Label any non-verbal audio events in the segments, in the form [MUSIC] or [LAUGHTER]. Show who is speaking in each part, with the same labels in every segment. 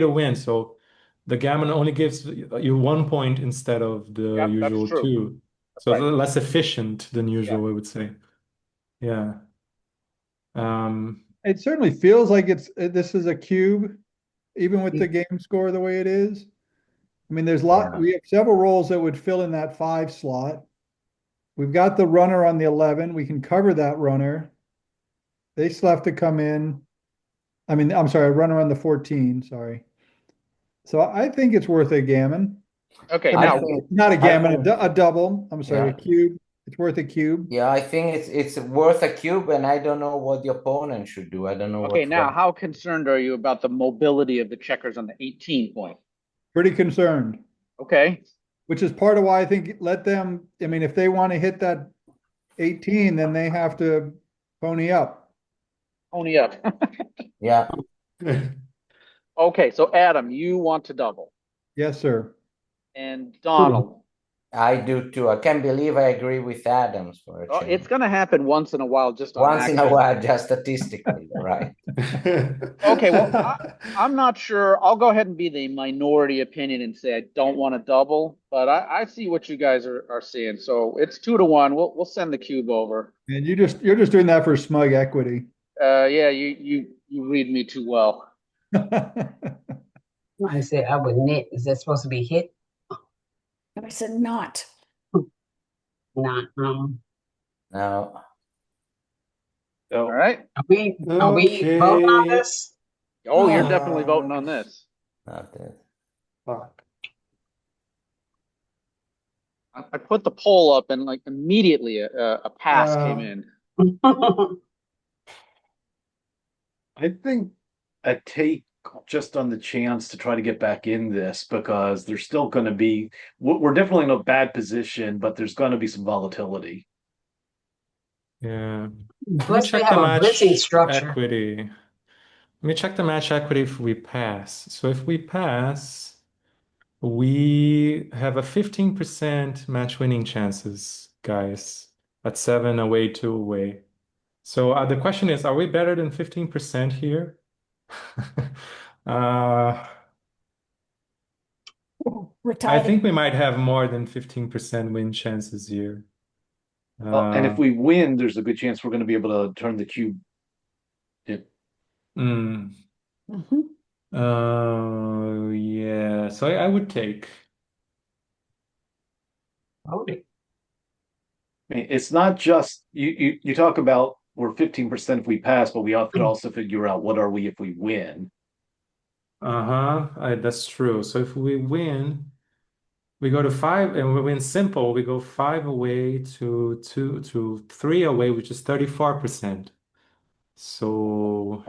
Speaker 1: to win. So the gammon only gives you one point instead of the
Speaker 2: Yeah, that's
Speaker 1: usual
Speaker 2: true.
Speaker 1: two. So
Speaker 2: right.
Speaker 1: they're less efficient than usual, I would say. Yeah. Um, [LAUGHS]
Speaker 3: It certainly feels like it's, uh, this is a cube, even with the game score the way it is. I mean, there's lot,
Speaker 1: Yeah.
Speaker 3: we have several roles that would fill in that five slot. We've got the runner on the eleven, we can cover that runner. They still have to come in. I mean, I'm sorry, a runner on the fourteen, sorry. So I think it's worth a gammon.
Speaker 2: Okay,
Speaker 3: I mean,
Speaker 2: now,
Speaker 4: think-
Speaker 3: Not a gammon, a
Speaker 4: think-
Speaker 3: du- a double, I'm sorry, a
Speaker 4: Yeah.
Speaker 3: cube. It's worth a cube.
Speaker 4: Yeah, I think it's it's worth a cube, and I don't know what the opponent should do. I don't know.
Speaker 2: okay,
Speaker 4: what
Speaker 2: now,
Speaker 4: what-
Speaker 2: how concerned are you about the mobility of the checkers on the eighteen point?
Speaker 3: Pretty concerned.
Speaker 2: Okay,
Speaker 3: Which is part of why I think let them, I mean, if they want to hit that eighteen, then they have to pony up.
Speaker 2: pony up. [LAUGHS]
Speaker 4: Yeah,
Speaker 2: Okay, so Adam, you want to double,
Speaker 3: Yes, sir.
Speaker 2: and Donald,
Speaker 4: I do too. I can't believe I agree with Adams for a
Speaker 2: Oh,
Speaker 4: change.
Speaker 2: it's gonna happen once in a while, just on
Speaker 4: Once in a
Speaker 2: accident.
Speaker 4: while, just statistically, right? [LAUGHS]
Speaker 2: Okay,
Speaker 1: [LAUGHS]
Speaker 2: well, I'm not sure. I'll go ahead and be the minority opinion and say I don't want to double, but I, I see what you guys are, are seeing. So it's two to one. We'll, we'll send the cube over.
Speaker 3: And you just, you're just doing that for smug equity. [LAUGHS]
Speaker 2: Uh, yeah, you, you, you read me too well.
Speaker 5: I said I would knit. Is that supposed to be hit?
Speaker 6: I said not.
Speaker 5: Not, um,
Speaker 4: Now,
Speaker 2: All right.
Speaker 5: are we, are we voting on
Speaker 1: Okay.
Speaker 5: this? [LAUGHS]
Speaker 2: Oh, you're
Speaker 1: Uh,
Speaker 2: definitely voting on this.
Speaker 4: not that.
Speaker 1: Fuck.
Speaker 2: I, I put the poll up and like immediately a, a a pass came
Speaker 1: Uh,
Speaker 2: in.
Speaker 7: I think a take just on the chance to try to get back in this because there's still going to be we- we're definitely in a bad position, but there's going to be some volatility.
Speaker 1: yeah. Let me
Speaker 5: Plus we
Speaker 1: check
Speaker 5: have
Speaker 1: the
Speaker 5: a blitzing
Speaker 1: match
Speaker 5: structure.
Speaker 1: Equity. Let me check the match equity if we pass. So if we pass, we have a 15% match winning chances, guys, at seven away, two away. So uh, the question is, are we better than 15% here? [LAUGHS] uh,
Speaker 6: We're
Speaker 1: I
Speaker 6: tied.
Speaker 1: think we might have more than 15% win chances here.
Speaker 7: Uh, and
Speaker 1: Uh,
Speaker 7: if we win, there's a good chance we're going to be able to turn the cube.
Speaker 1: mm.
Speaker 6: Mhm.
Speaker 1: Uh, yeah. So I, I would take.
Speaker 5: Voted.
Speaker 7: I mean, it's not just you. You, you talk about we're fifteen percent if we pass, but we have to also figure out what are we if we win.
Speaker 1: Uh-huh. I, that's true. So if we win, we go to five, and we win simple. We go five away to two to three away, which is 34%. So,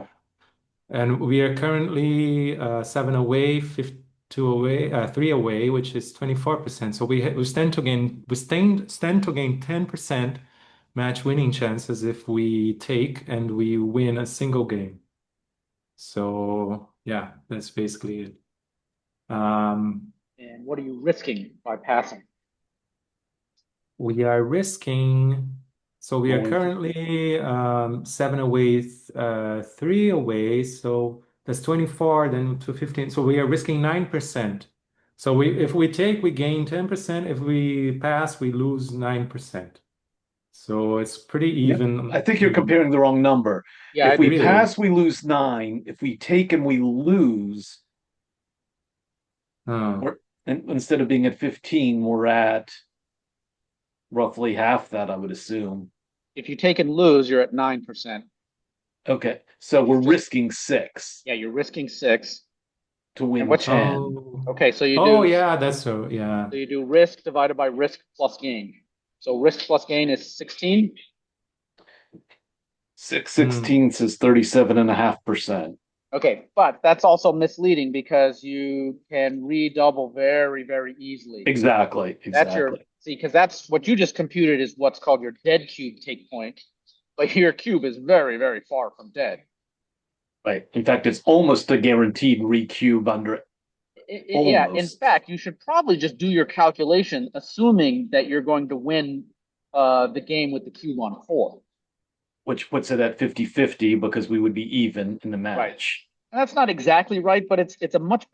Speaker 1: and we are currently uh, seven away, fif two away, uh, three away, which is 24%. So we ha we stand to gain we stand stand to gain 10% match winning chances if we take and we win a single game. So yeah, that's basically it. Um,
Speaker 2: And what are you risking by passing?
Speaker 1: we are risking, so we are
Speaker 7: Going to-
Speaker 1: currently um, seven away, th- uh, three away. So that's 24, then to 15. So we are risking 9%. So we, if we take, we gain 10%. If we pass, we lose 9%. So it's pretty
Speaker 7: Yeah,
Speaker 1: even. Oh.
Speaker 7: I think you're comparing the wrong number.
Speaker 2: Yeah, I
Speaker 7: if we
Speaker 1: Hmm.
Speaker 2: do
Speaker 1: agree.
Speaker 2: too.
Speaker 7: pass, we lose nine. If we take and we lose,
Speaker 1: Oh.
Speaker 7: And instead of being at 15, we're at roughly half that, I would assume.
Speaker 2: if you take and lose, you're at nine percent.
Speaker 7: Okay, so we're risking six
Speaker 2: Yeah, Um, you're risking six.
Speaker 7: to win
Speaker 2: And what's-
Speaker 7: 10.
Speaker 1: Oh.
Speaker 2: Okay, so you do.
Speaker 1: Oh, yeah, that's so. Yeah.
Speaker 2: So you do risk divided by risk plus gain. So risk plus gain is sixteen.
Speaker 7: Six
Speaker 2: hmm.
Speaker 7: sixteenths is 37 and a half percent.
Speaker 2: Okay, but that's also misleading because you can redouble very, very easily.
Speaker 7: Exactly,
Speaker 2: That's your,
Speaker 7: exactly.
Speaker 2: see, because that's what you just computed is what's called your dead cube take point. But your cube is very, very far from dead.
Speaker 7: Right. In fact, it's almost a guaranteed recube under
Speaker 2: I- I- yeah, in
Speaker 7: Almost.
Speaker 2: fact, you should probably just do your calculation assuming that you're going to win uh, the game with the cube on four.
Speaker 7: which puts it at 50 50 because we would be even in the match.
Speaker 2: That's not exactly right, but it's, it's a much